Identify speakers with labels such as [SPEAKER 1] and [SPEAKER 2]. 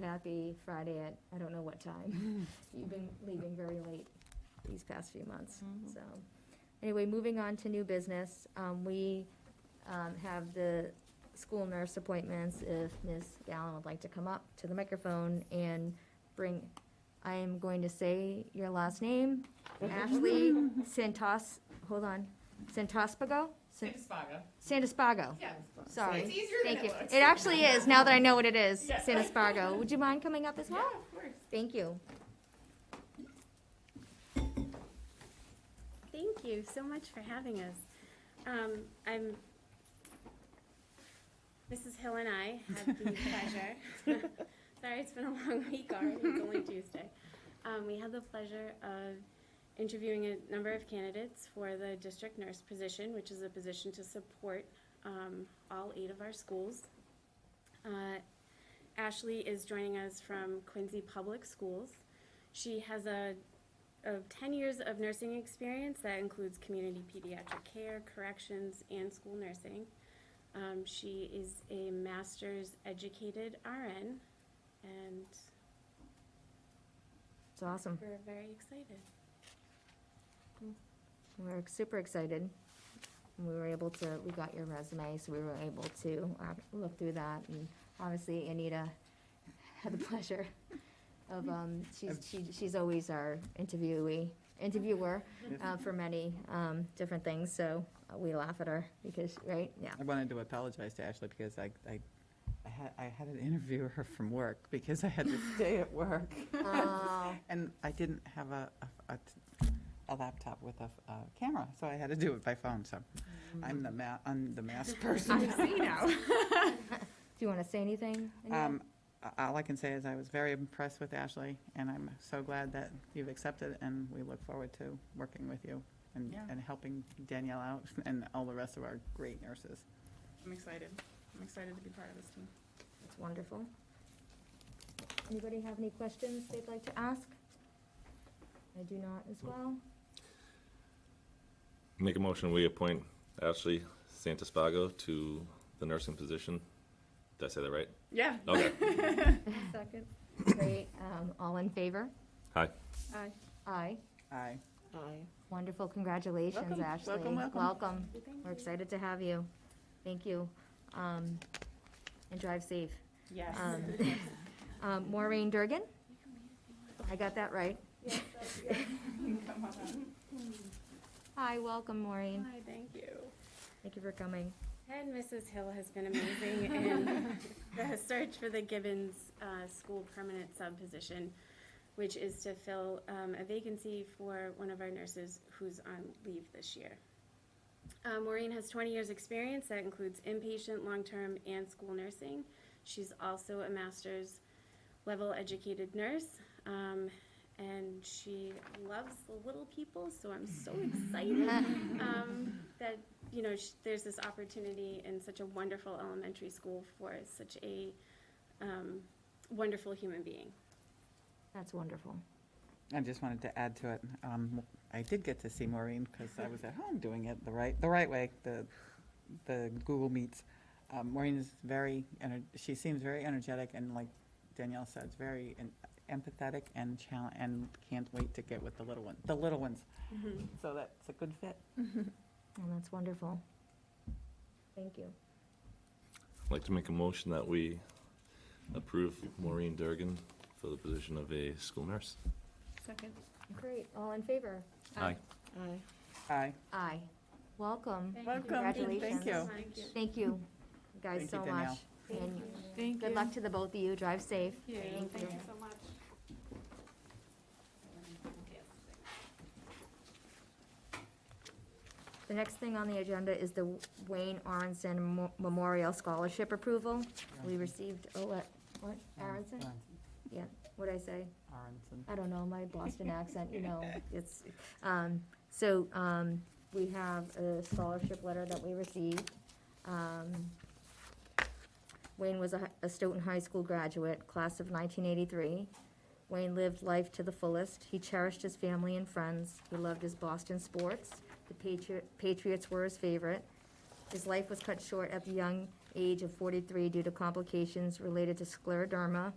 [SPEAKER 1] not be Friday at, I don't know what time. You've been leaving very late these past few months,
[SPEAKER 2] Mm-hmm.
[SPEAKER 1] so. Anyway, moving on to new business, um, we, um, have the school nurse appointments. If Ms. Gallen would like to come up to the microphone and bring, I am going to say your last name, Ashley Santos, hold on, Santospago? San-
[SPEAKER 2] Spaga.
[SPEAKER 1] Sandispago,
[SPEAKER 2] Yeah.
[SPEAKER 1] sorry.
[SPEAKER 2] It's easier than
[SPEAKER 1] Thank you.
[SPEAKER 2] it looks.
[SPEAKER 1] It actually is, now that I know what it is,
[SPEAKER 2] Yeah.
[SPEAKER 1] San Espargo. Would you mind coming up as
[SPEAKER 2] Yeah,
[SPEAKER 1] well?
[SPEAKER 2] of course.
[SPEAKER 1] Thank you.
[SPEAKER 3] Thank you so much for having us. Um, I'm, Mrs. Hill and I had the pleasure, sorry, it's been a long week already, it's only Tuesday. Um, we had the pleasure of interviewing a number of candidates for the district nurse position, which is a position to support, um, all eight of our schools. Uh, Ashley is joining us from Quincy Public Schools. She has a of 10 years of nursing experience that includes community pediatric care, corrections, and school nursing. Um, she is a master's educated RN, and
[SPEAKER 1] It's awesome.
[SPEAKER 3] we're very excited.
[SPEAKER 1] We're super excited. We were able to, we got your resume, so we were able to uh, look through that. And obviously Anita had the pleasure of, um, she's, she- she's always our interviewee, interviewer uh, for many um, different things, so uh, we laugh at her because, right? Yeah.
[SPEAKER 4] I wanted to apologize to Ashley because I, I, I had, I had to interview her from work because I had to stay at work.
[SPEAKER 1] Oh,
[SPEAKER 4] And I didn't have a, a, a t- a laptop with a, f- a camera, so I had to do it by phone, so
[SPEAKER 2] Mm-hmm.
[SPEAKER 4] I'm the ma, I'm the mask person.
[SPEAKER 1] Do you want to say anything? Anita?
[SPEAKER 4] Um, a- all I can say is I was very impressed with Ashley and I'm so glad that you've accepted and we look forward to working with you and,
[SPEAKER 2] Yeah.
[SPEAKER 4] and helping Danielle out and all the rest of our great nurses.
[SPEAKER 2] I'm excited. I'm excited to be part of this team.
[SPEAKER 1] That's wonderful. Anybody have any questions they'd like to ask? I do not as well.
[SPEAKER 5] Make a motion, we appoint Ashley Santisfago to the nursing position. Did I say that right?
[SPEAKER 2] Yeah.
[SPEAKER 5] Okay.
[SPEAKER 1] Second. Great, um, all in favor?
[SPEAKER 5] Hi.
[SPEAKER 1] Aye. Aye,
[SPEAKER 4] Aye.
[SPEAKER 1] wonderful, congratulations,
[SPEAKER 4] Welcome,
[SPEAKER 1] Ashley.
[SPEAKER 4] welcome, welcome.
[SPEAKER 1] Welcome,
[SPEAKER 3] Thank you.
[SPEAKER 1] we're excited to have you, thank you, um, and drive safe.
[SPEAKER 2] Yes.
[SPEAKER 1] Um, um, Maureen Durgan? I got that right? Hi, welcome, Maureen,
[SPEAKER 3] Hi, thank you.
[SPEAKER 1] thank you for coming.
[SPEAKER 3] And Mrs. Hill has been amazing in the search for the Gibbons uh, School Permanent Sub position, which is to fill um, a vacancy for one of our nurses who's on leave this year. Uh, Maureen has 20 years' experience that includes inpatient, long-term, and school nursing. She's also a master's level educated nurse, um, and she loves the little people. So I'm so excited um, that you know sh- there's this opportunity in such a wonderful elementary school for such a um, wonderful human being.
[SPEAKER 1] That's wonderful.
[SPEAKER 4] I just wanted to add to it, um, I did get to see Maureen because I was at home doing it the right, the right way, the, the Google Meets. Um, Maureen is very, ener- she seems very energetic and like Danielle said, it's very en- empathetic and chal- and can't wait to get with the little one, the little ones.
[SPEAKER 1] Mm-hmm.
[SPEAKER 4] So that's a good fit.
[SPEAKER 1] Oh, that's wonderful. Thank you.
[SPEAKER 5] I'd like to make a motion that we approve Maureen Durgan for the position of a school nurse.
[SPEAKER 2] Second.
[SPEAKER 1] Great, all in favor?
[SPEAKER 5] Aye.
[SPEAKER 4] Aye.
[SPEAKER 1] Aye. Welcome.
[SPEAKER 3] Thank
[SPEAKER 2] Welcome.
[SPEAKER 1] Congratulations.
[SPEAKER 4] Thank you.
[SPEAKER 3] Thank you.
[SPEAKER 1] Thank you, guys,
[SPEAKER 4] Thank you,
[SPEAKER 1] so much.
[SPEAKER 4] Danielle.
[SPEAKER 1] And
[SPEAKER 2] Thank you.
[SPEAKER 1] good luck to the both of you, drive safe.
[SPEAKER 3] Thank you so much.
[SPEAKER 1] The next thing on the agenda is the Wayne Aronson Mo- Memorial Scholarship Approval. We received, oh, what, what,
[SPEAKER 4] Um,
[SPEAKER 1] Aronson?
[SPEAKER 4] uh,
[SPEAKER 1] Yeah, what'd I say?
[SPEAKER 4] Aronson.
[SPEAKER 1] I don't know, my Boston accent, you know, it's, um, so, um, we have a scholarship letter that we received. Um, Wayne was a, hi- a Stoughton High School graduate, class of nineteen eighty-three. Wayne lived life to the fullest. He cherished his family and friends. He loved his Boston sports. The Patriot, Patriots were his favorite. His life was cut short at the young age of forty-three due to complications related to scleroderma,